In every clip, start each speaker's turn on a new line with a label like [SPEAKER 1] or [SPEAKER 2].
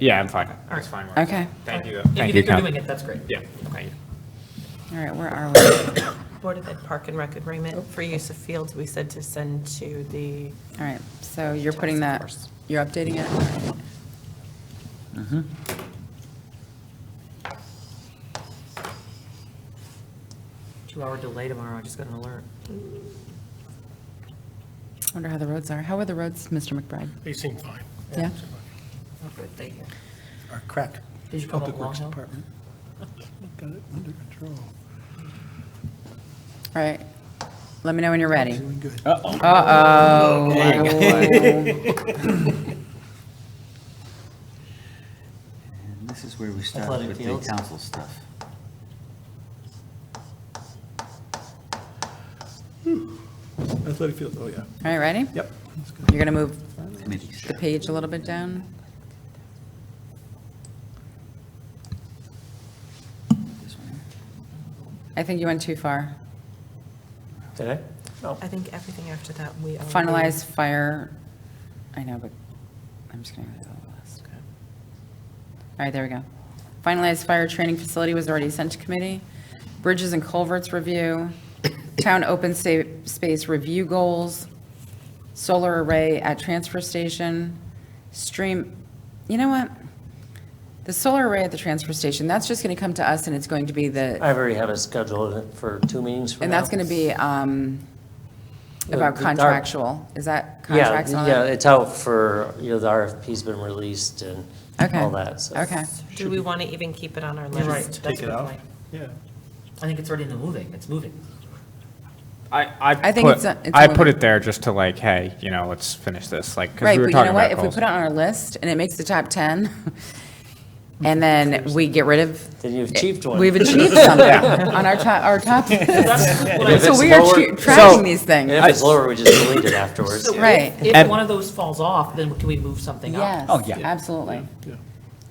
[SPEAKER 1] Yeah, I'm fine.
[SPEAKER 2] All right. fine.
[SPEAKER 3] Okay.
[SPEAKER 1] Thank you.
[SPEAKER 2] If
[SPEAKER 1] Thank
[SPEAKER 2] you're
[SPEAKER 1] you, Cal.
[SPEAKER 2] doing it, that's great.
[SPEAKER 1] Yeah.
[SPEAKER 2] Okay.
[SPEAKER 3] All right, where are we?
[SPEAKER 4] Board of Ed Park and Rec agreement for use of fields, we said to send to the,
[SPEAKER 3] All right, so you're putting that, you're updating it? All right.
[SPEAKER 2] Two-hour delay tomorrow, I just got an alert.
[SPEAKER 3] Wonder how the roads are. How are the roads, Mr. McBride?
[SPEAKER 5] They seem fine.
[SPEAKER 3] Yeah?
[SPEAKER 2] Oh, good, thank you.
[SPEAKER 5] Our crack.
[SPEAKER 2] Did you call
[SPEAKER 5] Public
[SPEAKER 2] it Long
[SPEAKER 5] Works
[SPEAKER 2] Hill?
[SPEAKER 5] Department. Got it under control.
[SPEAKER 3] All right, let me know when you're ready.
[SPEAKER 5] Doing good.
[SPEAKER 3] Uh-oh. Oh,
[SPEAKER 6] And this is where we start
[SPEAKER 2] Athletic
[SPEAKER 6] with the
[SPEAKER 2] fields.
[SPEAKER 6] council stuff.
[SPEAKER 5] Athletic field, oh, yeah.
[SPEAKER 3] All right, ready?
[SPEAKER 5] Yep.
[SPEAKER 3] You're going to move
[SPEAKER 6] Committee
[SPEAKER 3] the
[SPEAKER 6] stuff.
[SPEAKER 3] page a little bit down?
[SPEAKER 6] This one here.
[SPEAKER 3] I think you went too far.
[SPEAKER 2] Did I?
[SPEAKER 4] I think everything after that, we. already-
[SPEAKER 3] Finalize fire, I know, but I'm just going to go to the last. All right, there we go. Finalized fire training facility was already sent to committee. Bridges and culverts review, town open sa- space review goals, solar array at transfer station, stream, you know what? The solar array at the transfer station, that's just going to come to us and it's going to be the,
[SPEAKER 7] I've already had it scheduled for two meetings from
[SPEAKER 3] and
[SPEAKER 7] now.
[SPEAKER 3] that's going to be um,
[SPEAKER 7] The-
[SPEAKER 3] about
[SPEAKER 7] Oh, the dark-
[SPEAKER 3] contractual. Is that
[SPEAKER 7] Yeah,
[SPEAKER 3] contracts and all
[SPEAKER 7] Yeah,
[SPEAKER 3] that?
[SPEAKER 7] it's out for, you know, the RFP's been released and
[SPEAKER 3] Okay.
[SPEAKER 7] all that, so.
[SPEAKER 3] Okay,
[SPEAKER 4] Do we want to even keep it on our
[SPEAKER 2] You're right.
[SPEAKER 4] list?
[SPEAKER 2] That's a good
[SPEAKER 5] out.
[SPEAKER 2] point.
[SPEAKER 5] Yeah.
[SPEAKER 2] I think it's already in the moving, it's moving.
[SPEAKER 1] I, I
[SPEAKER 3] I think
[SPEAKER 1] put,
[SPEAKER 3] it's a- it's
[SPEAKER 1] I
[SPEAKER 3] a-
[SPEAKER 1] put it there just to like, hey, you know, let's finish this, like, because
[SPEAKER 3] right,
[SPEAKER 1] we were
[SPEAKER 3] but you
[SPEAKER 1] talking
[SPEAKER 3] know what,
[SPEAKER 1] about
[SPEAKER 3] if we
[SPEAKER 1] goals.
[SPEAKER 3] put it on our list and it makes the top 10, and then we get rid of.
[SPEAKER 7] Then you've achieved one.
[SPEAKER 3] We've achieved something on our top, our top.
[SPEAKER 7] If
[SPEAKER 3] So
[SPEAKER 7] it's
[SPEAKER 3] we are
[SPEAKER 7] lower-
[SPEAKER 3] che- tracking
[SPEAKER 7] so-
[SPEAKER 3] these things,
[SPEAKER 7] If it's lower, we just delete it afterwards.
[SPEAKER 2] So
[SPEAKER 3] Right.
[SPEAKER 2] If if
[SPEAKER 1] And-
[SPEAKER 2] one of those falls off, then can we move something
[SPEAKER 3] yes,
[SPEAKER 2] up?
[SPEAKER 1] Oh, yeah.
[SPEAKER 3] absolutely.
[SPEAKER 5] Yeah.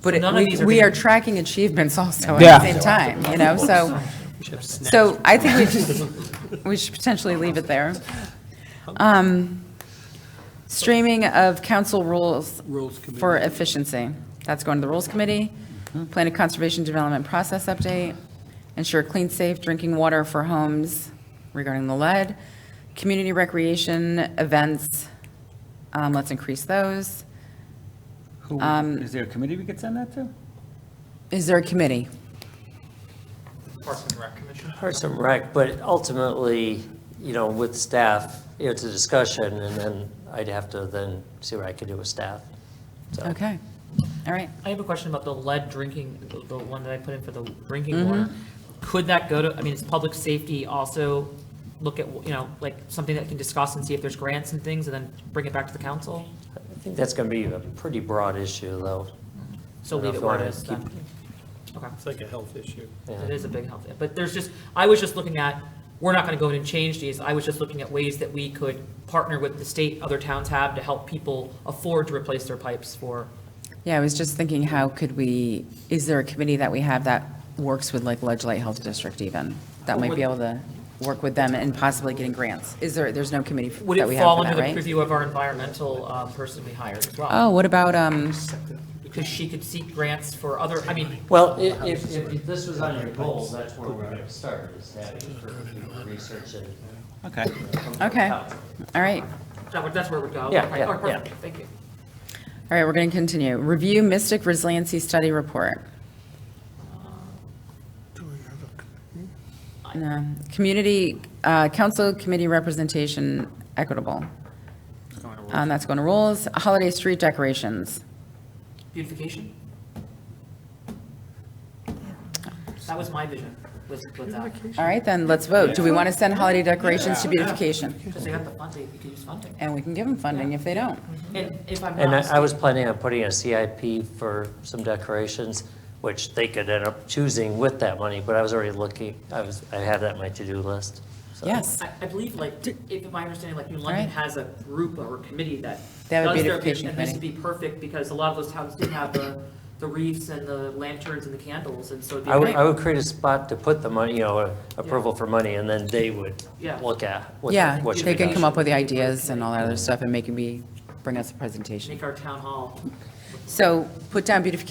[SPEAKER 3] But it-
[SPEAKER 2] none of
[SPEAKER 3] we,
[SPEAKER 2] these are
[SPEAKER 3] we
[SPEAKER 2] being-
[SPEAKER 3] are tracking achievements also
[SPEAKER 1] Yeah.
[SPEAKER 3] at the same time, you know, so, so I think we should, we should potentially leave it there. Um, Streaming of council rules
[SPEAKER 5] Rules
[SPEAKER 3] for
[SPEAKER 5] committee.
[SPEAKER 3] efficiency. That's going to the Rules Committee.
[SPEAKER 1] Mm-hmm.
[SPEAKER 3] Plan of Conservation Development Process Update. Ensure clean, safe drinking water for homes regarding the lead. Community recreation events, um, let's increase those.
[SPEAKER 6] Who-
[SPEAKER 3] Um,
[SPEAKER 6] Is there a committee we could send that to?
[SPEAKER 3] Is there a committee?
[SPEAKER 2] Parks and Rec Commission?
[SPEAKER 7] Parks and Rec, but ultimately, you know, with staff, you know, it's a discussion, and then I'd have to then see what I could do with staff. So-
[SPEAKER 3] Okay, all right.
[SPEAKER 2] I have a question about the lead drinking, the- the one that I put in for the drinking water. Could that go to, I mean, is public safety also look at, you know, like, something that can discuss and see if there's grants and things, and then bring it back to the council?
[SPEAKER 7] I think that's going to be a pretty broad issue, though.
[SPEAKER 2] So
[SPEAKER 7] I don't
[SPEAKER 2] leave
[SPEAKER 7] know
[SPEAKER 2] it
[SPEAKER 7] if I
[SPEAKER 2] where it
[SPEAKER 7] wanna
[SPEAKER 2] is then? Okay,
[SPEAKER 5] It's like a health issue.
[SPEAKER 7] Yeah.
[SPEAKER 2] it is a big health, but there's just, I was just looking at, we're not gonna go in and change these, I was just looking at ways that we could partner with the state, other towns have, to help people afford to replace their pipes for,
[SPEAKER 3] Yeah, I was just thinking, how could we, is there a committee that we have that works with like Ledge Light Health District even? That might be able to work with them and possibly getting grants? Is there, there's no committee
[SPEAKER 2] would
[SPEAKER 3] that
[SPEAKER 2] it
[SPEAKER 3] we have
[SPEAKER 2] fall
[SPEAKER 3] for
[SPEAKER 2] under
[SPEAKER 3] that,
[SPEAKER 2] the
[SPEAKER 3] right?
[SPEAKER 2] purview of our environmental uh, person we hired as well?
[SPEAKER 3] Oh, what about, um,
[SPEAKER 2] because she could seek grants for other, I mean,
[SPEAKER 7] Well, if, if, if this was on your goals, that's where we're gonna start, is that for research and.
[SPEAKER 6] Okay.
[SPEAKER 3] okay, all right.
[SPEAKER 2] that would- that's where it would go.
[SPEAKER 7] Yeah,
[SPEAKER 2] Okay,
[SPEAKER 7] yeah,
[SPEAKER 2] all right, perfect.
[SPEAKER 7] yeah.
[SPEAKER 2] Thank you.
[SPEAKER 3] All right, we're going to continue. Review Mystic Resiliency Study Report. No. Community, uh, council committee representation equitable. Um, That's going to rules. Holiday street decorations.
[SPEAKER 2] Beautification? That was my vision, was with that,
[SPEAKER 3] All right, then, let's vote. Do we want to send holiday decorations to beautification?
[SPEAKER 2] because they got the funding, you could use funding.
[SPEAKER 3] And we can give them funding if they don't.
[SPEAKER 2] And if I'm
[SPEAKER 7] And
[SPEAKER 2] not
[SPEAKER 7] I, I was planning on putting a CIP for some decorations, which they could end up choosing with that money, but I was already looking, I was, I had that on my to-do list. so.
[SPEAKER 3] Yes,
[SPEAKER 2] I, I believe like, if my understanding, like New London
[SPEAKER 3] Right.
[SPEAKER 2] has a group or a committee that
[SPEAKER 3] They have a
[SPEAKER 2] does their
[SPEAKER 3] beautification
[SPEAKER 2] And this would be perfect because a lot of those towns do have the, the wreaths and the lanterns and the candles and so it'd be.
[SPEAKER 7] I would,
[SPEAKER 2] great.
[SPEAKER 7] I would create a spot to put the money, you know, a- approval for money, and then they would
[SPEAKER 2] Yeah.
[SPEAKER 7] look at what,
[SPEAKER 3] yeah,
[SPEAKER 7] what should
[SPEAKER 3] they
[SPEAKER 7] be
[SPEAKER 3] can
[SPEAKER 7] done.
[SPEAKER 3] come up with the ideas and all that other stuff and make me, bring us a presentation.
[SPEAKER 2] Make our town hall. look
[SPEAKER 3] So put down beautification